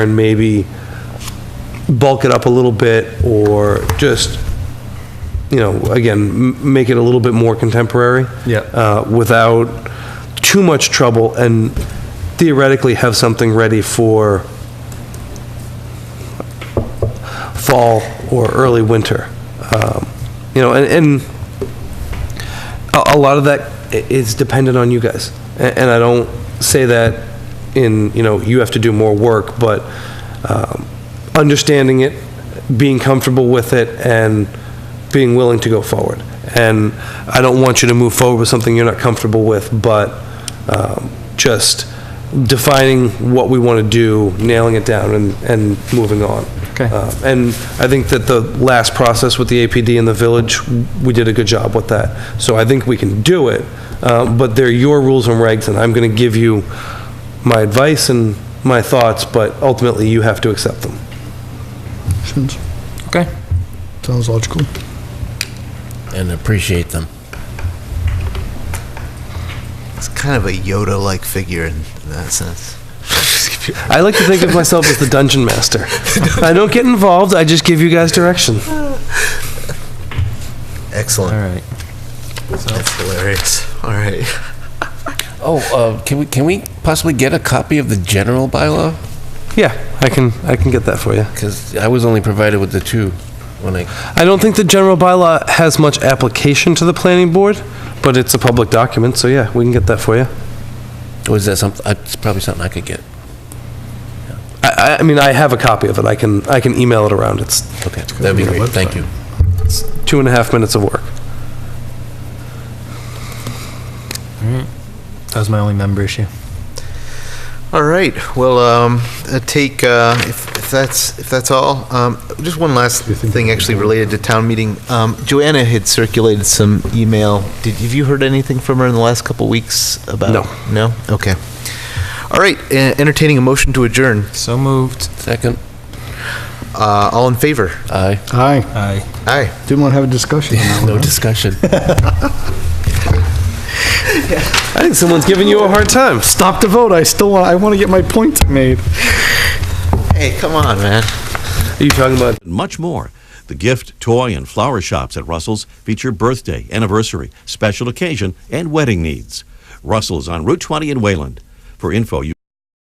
and maybe bulk it up a little bit, or just, you know, again, m- make it a little bit more contemporary. Yeah. Uh, without too much trouble, and theoretically have something ready for fall or early winter. Um, You know, and, and a, a lot of that i- is dependent on you guys. A- And I don't say that in, you know, you have to do more work, but um, understanding it, being comfortable with it, and being willing to go forward. And I don't want you to move forward with something you're not comfortable with, but um, just defining what we want to do, nailing it down, and, and moving on. Okay. Uh, and I think that the last process with the APD in the village, we did a good job with that. So I think we can do it, uh, but they're your rules and regs, and I'm going to give you my advice and my thoughts, but ultimately you have to accept them. Options. Okay. Sounds logical. and appreciate them. It's kind of a Yoda-like figure in, in that sense. I like to think of myself as the dungeon master. I don't get involved, I just give you guys direction. Excellent. All right. That's hilarious. All right. Oh, uh, can we can we possibly get a copy of the general bylaw? Yeah, I can, I can get that for you. Because I was only provided with the two when I. I don't think the general bylaw has much application to the planning board, but it's a public document, so yeah, we can get that for you. Was that something? Uh, it's probably something I could get. I, I- I mean, I have a copy of it. I can, I can email it around. It's Okay, that'd be great. Thank you. two and a half minutes of work. That was my only member issue. All right. Well, um, uh, take uh, if, if that's if that's all. Um, just one last thing, actually related to town meeting. Um, Joanna had circulated some email. Did have you heard anything from her in the last couple weeks about? No. No. Okay. All right. Uh, entertaining a motion to adjourn. So moved. Second, Uh, all in favor? aye. Aye. Aye. Aye. Didn't want to have a discussion on that one. No discussion. I think someone's giving you a hard time. Stop the vote. I still want, I want to get my points made. Hey, come on, man. Are you talking about and much more. The gift, toy, and flower shops at Russell's feature birthday, anniversary, special occasion, and wedding needs. Russell's on Route 20 in Wayland. For info, you